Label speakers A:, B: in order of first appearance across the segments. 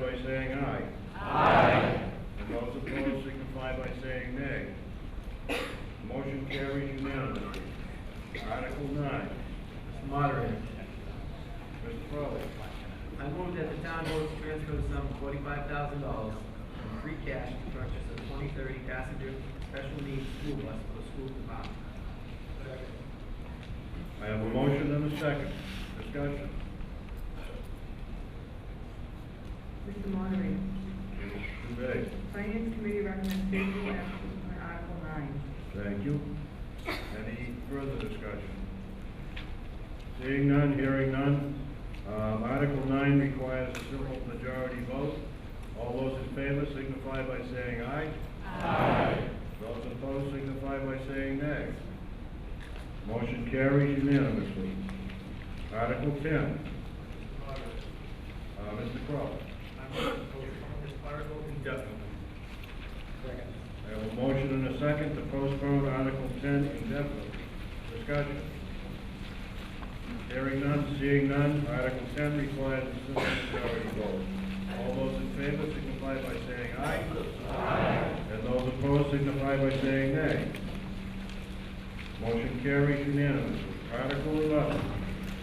A: by saying aye. Aye. And those opposed signify by saying nay. Motion carries unanimously. Article nine,
B: Mr. Moderator,
A: Mr. Crowley.
B: I move that the town votes to transfer the sum of forty-five thousand dollars from free cash to purchase a twenty thirty passenger special needs school bus for the school department.
A: I have a motion and a second. Discussion.
C: Mr. Moderator,
A: Mr. Bay.
C: Finance Committee recommends favorable action on Article nine.
A: Thank you. Any further discussion? Seeing none, hearing none. Um, Article nine requires a simple majority vote. All those in favor signify by saying aye. Aye. Those opposed signify by saying nay. Motion carries unanimously. Article ten, uh, Mr. Crowley.
B: I move to postpone this article indefinitely. Second.
A: I have a motion and a second to postpone Article ten indefinitely. Discussion. Hearing none, seeing none, Article ten requires a simple majority vote. All those in favor signify by saying aye. Aye. And those opposed signify by saying nay. Motion carries unanimously. Article eleven,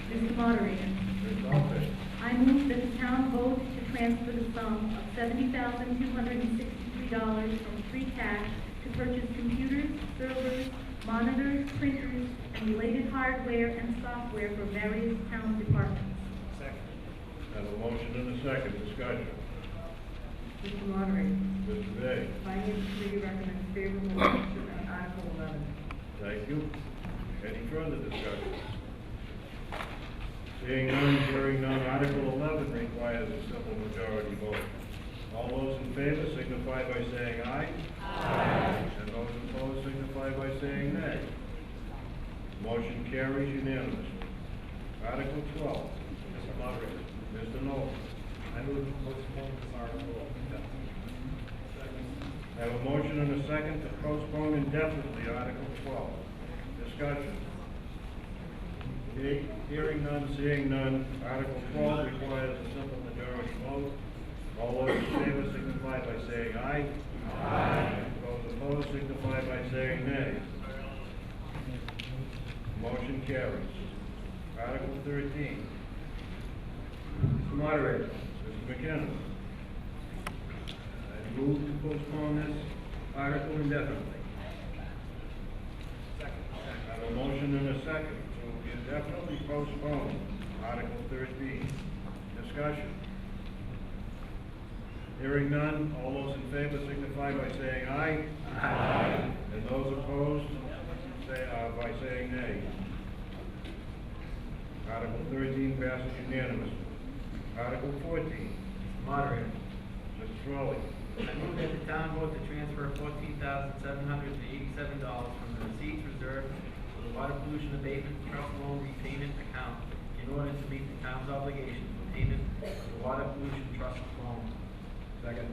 C: Mr. Moderator,
A: Ms. Alves.
C: I move that the town vote to transfer the sum of seventy thousand two hundred and sixty-three dollars from free cash to purchase computers, servers, monitors, printers, and related hardware and software for various town departments.
B: Second.
A: I Have a motion and a second. Discussion.
C: Mr. Moderator,
A: Mr. Day.
C: Finance Committee recommends favorable action on Article eleven.
A: Thank you. Any further discussion? Seeing none, hearing none, Article eleven requires a simple majority vote. All those in favor signify by saying aye. Aye. And those opposed signify by saying nay. Motion carries unanimously. Article twelve,
B: Mr. Moderator,
A: Mr. Noel.
B: I move to postpone this article indefinitely.
A: I Have a motion and a second to postpone indefinitely Article twelve. Discussion. He- Hearing none, seeing none, Article twelve requires a simple majority vote. All those in favor signify by saying aye. Aye. Those opposed signify by saying nay. Motion carries. Article thirteen,
B: Mr. Moderator,
A: Mr. McKenna. I move to postpone this article indefinitely. I have a motion and a second to indefinitely postpone Article thirteen. Discussion. Hearing none, all those in favor signify by saying aye. Aye. And those opposed, say, uh, by saying nay. Article thirteen passes unanimously. Article fourteen,
B: Mr. Moderator,
A: Mr. Trolley.
B: I move that the town vote to transfer fourteen thousand seven hundred and eighty-seven dollars from the receipts reserved for the water pollution abatement trust loan repayment account in order to meet the town's obligation for payment of the water pollution trust loan. Second.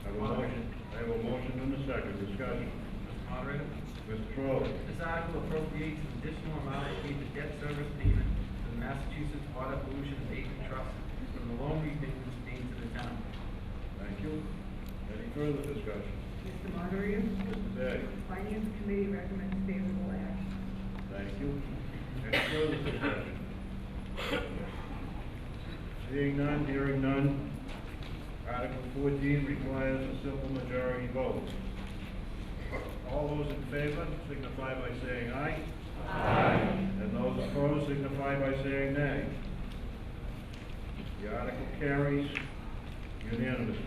A: I have a motion, I have a motion and a second. Discussion.
B: Mr. Moderator,
A: Mr. Trolley.
B: this article appropriates an additional amount to pay the debt service payment to the Massachusetts Water Pollution Abatement Trust from the loan repayments made to the town.
A: Thank you. Any further discussion?
C: Mr. Moderator,
A: Mr. Day?
C: Finance Committee recommends favorable action.
A: Thank you. Any further discussion? Seeing none, hearing none. Article fourteen requires a simple majority vote. All those in favor signify by saying aye. Aye. And those opposed signify by saying nay. The article carries unanimously.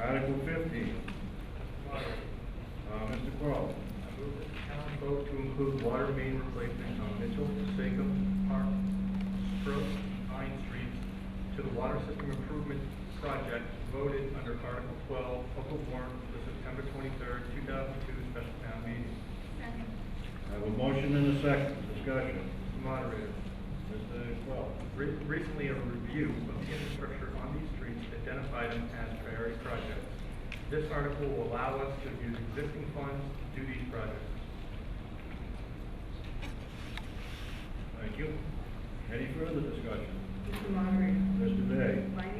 A: Article fifteen, uh, Mr. Crowe.
B: I move that the town vote to include water main replacement on Mitchell, Seacoast, Park, Brook, Pine Streets to the water system improvement project voted under Article twelve, public warrant for the September twenty-third, two thousand two special town meeting.
C: Second.
A: I have a motion and a second, discussion.
B: Moderator,
A: Mr. Quell.
B: re- recently a review of the infrastructure on these streets identified them as priority projects. This article will allow us to use existing funds to do these projects.
A: Thank you. Any further discussion?
C: Mr. Moderator,
A: Mr. Day.
C: Finance